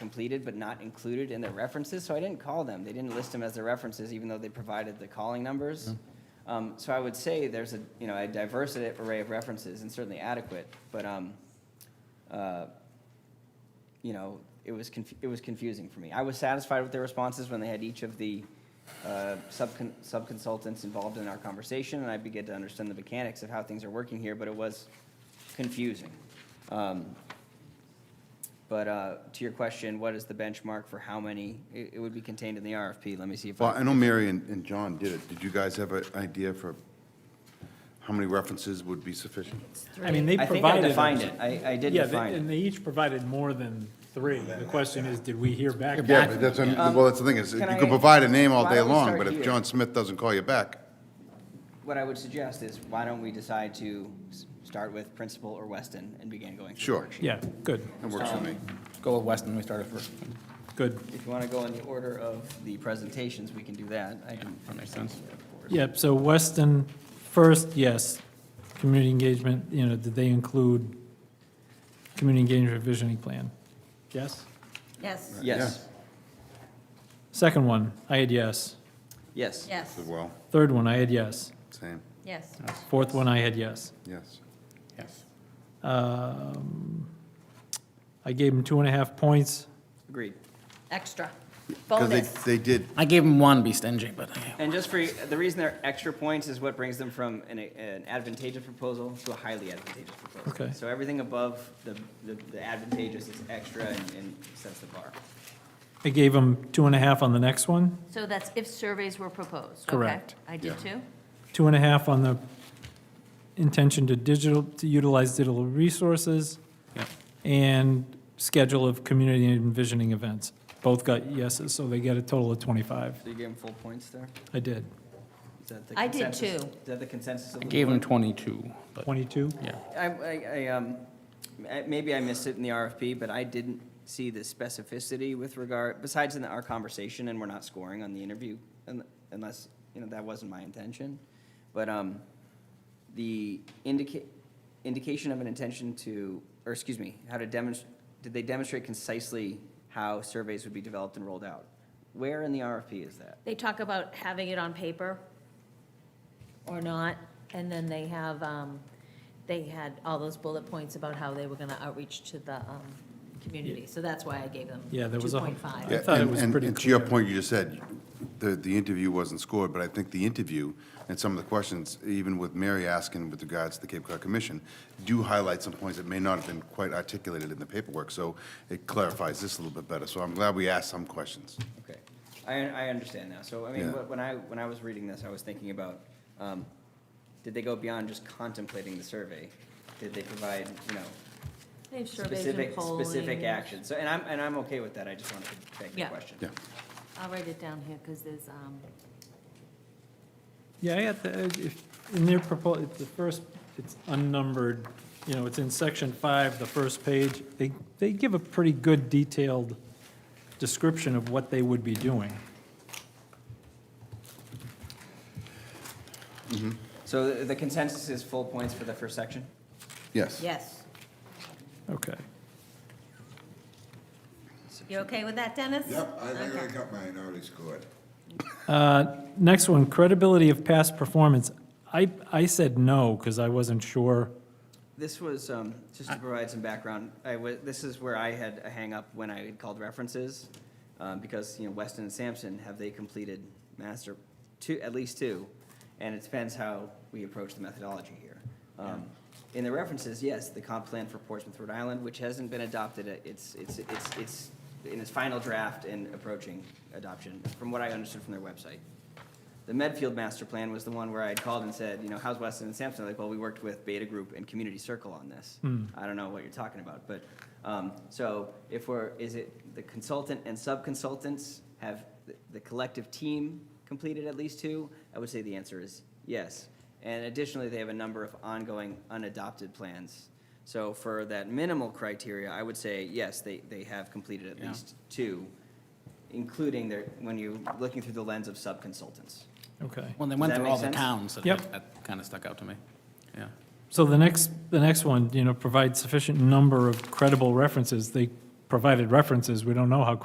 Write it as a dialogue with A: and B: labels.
A: completed but not included in their references, so I didn't call them. They didn't list them as their references, even though they provided the calling numbers. Um, So I would say there's a, you know, a diverse array of references and certainly adequate, but, um, uh, you know, it was, conf- it was confusing for me. I was satisfied with their responses when they had each of the uh, subcon- subconsultants involved in our conversation, and I began to understand the mechanics of how things are working here, but it was confusing. Um, But uh, to your question, what is the benchmark for how many? It it would be contained in the RFP. Let me see if
B: Well, I
A: I,
B: know Mary and, and John did it. Did you guys have an idea for how many references would be sufficient?
C: I mean, they
A: I think I
C: provided.
A: defined it. I I did
C: Yeah,
A: define
C: they-
A: it.
C: and they each provided more than three. The question is, did we hear back?
B: Yeah, but that's, well, that's the thing, is you
A: um, Can
B: could
A: I-
B: provide a name all
A: why
B: day
A: don't we
B: long,
A: start
B: but if
A: here?
B: John Smith doesn't call you back,
A: What I would suggest is, why don't we decide to s- start with Principal or Weston and begin going through the
B: Sure.
A: worksheet?
C: Yeah, good,
B: it works for me.
D: Go with Weston, we started first.
C: good.
A: If you want to go in the order of the presentations, we can do that. I can
D: That makes sense.
C: Yep, so Weston, first, yes, community engagement, you know, did they include community engagement visioning plan? Yes?
E: Yes,
A: Yes,
C: Second one, I had yes.
A: yes.
E: yes,
B: As well,
C: Third one, I had yes.
B: same,
E: yes,
C: Fourth one, I had yes.
B: yes.
D: Yes.
C: Um, I gave them two and a half points.
A: Agreed.
E: extra,
B: Because they,
E: bonus,
B: they did,
D: I gave him one, be stingy, but
A: And just for, the reason they're extra points is what brings them from an an advantageous proposal to a highly advantageous proposal.
C: Okay.
A: So everything above the, the the advantageous is extra and and sets the bar.
C: I gave them two and a half on the next one,
E: so that's if surveys were proposed, okay?
C: Correct.
E: I did too?
C: two and a half on the intention to digital, to utilize digital resources,
D: Yep.
C: and schedule of community envisioning events. Both got yeses, so they get a total of 25.
A: So you gave them full points there?
C: I did.
A: Is that the
E: I did
A: consensus-
E: too.
A: Is that the consensus of
D: I
A: the
D: gave him
A: board?
D: 22, but,
C: 22?
D: yeah.
A: I, I, I, um, m- maybe I missed it in the RFP, but I didn't see the specificity with regard, besides in our conversation, and we're not scoring on the interview, un- unless, you know, that wasn't my intention. But, um, the indica- indication of an intention to, or excuse me, how to demonstrate, did they demonstrate concisely how surveys would be developed and rolled out? Where in the RFP is that?
E: They talk about having it on paper or not, and then they have, um, they had all those bullet points about how they were gonna outreach to the, um, community, so that's why I gave them
C: Yeah, there was a-
E: two point five.
C: I
B: yeah,
C: thought it
B: and,
C: was
B: and
C: pretty
B: and to your
C: clear.
B: point, you just said, the, the interview wasn't scored, but I think the interview and some of the questions, even with Mary asking with regards to the Cape Cod Commission, do highlight some points that may not have been quite articulated in the paperwork, so it clarifies this a little bit better, so I'm glad we asked some questions.
A: Okay, I, I understand now. So, I mean,
B: Yeah.
A: wh- when I, when I was reading this, I was thinking about, um, did they go beyond just contemplating the survey? Did they provide, you know,
E: They have surveys and
A: specific,
E: polling.
A: specific actions? So, and I'm, and I'm okay with that. I just wanted to beg the
E: Yeah.
A: question.
B: Yeah,
E: I'll write it down here, because there's, um,
C: Yeah, I got the, uh, if- in their proposal, it's the first, it's unnumbered, you know, it's in section five, the first page. They, they give a pretty good detailed description of what they would be doing.
A: So the the consensus is full points for the first section?
B: yes.
E: yes.
C: Okay.
E: You okay with that, Dennis?
F: Yep, I think I
E: Okay.
F: got mine already scored.
C: Uh, Next one, credibility of past performance. I, I said no, because I wasn't sure.
A: This was, um, just to provide some background, I wa- this is where I had a hangup when I had called references, um, because, you know, Weston and Sampson, have they completed master, two, at least two, and it depends how we approach the methodology here. Um, In the references, yes, the comp plan for Portsmouth, Rhode Island, which hasn't been adopted, uh, it's, it's, it's, it's in its final draft and approaching adoption, from what I understood from their website. The Medfield master plan was the one where I had called and said, you know, how's Weston and Sampson? Like, well, we worked with Beta Group and Community Circle on this. I don't know what you're talking about, but, um, so if we're, is it the consultant and sub-consultants have the- the collective team completed at least two? I would say the answer is yes. And additionally, they have a number of ongoing unadopted plans. So for that minimal criteria, I would say, yes, they, they have completed at
D: Yeah.
A: least two, including their, when you're looking through the lens of sub-consultants.
C: Okay.
D: When they
A: Does
D: went
A: that
D: through
A: make
D: all the
A: sense?
D: towns, that-
C: Yep.
D: that kind of stuck out to me, yeah.
C: So the next, the next one, you know, provide sufficient number of credible references. They provided references, we don't know how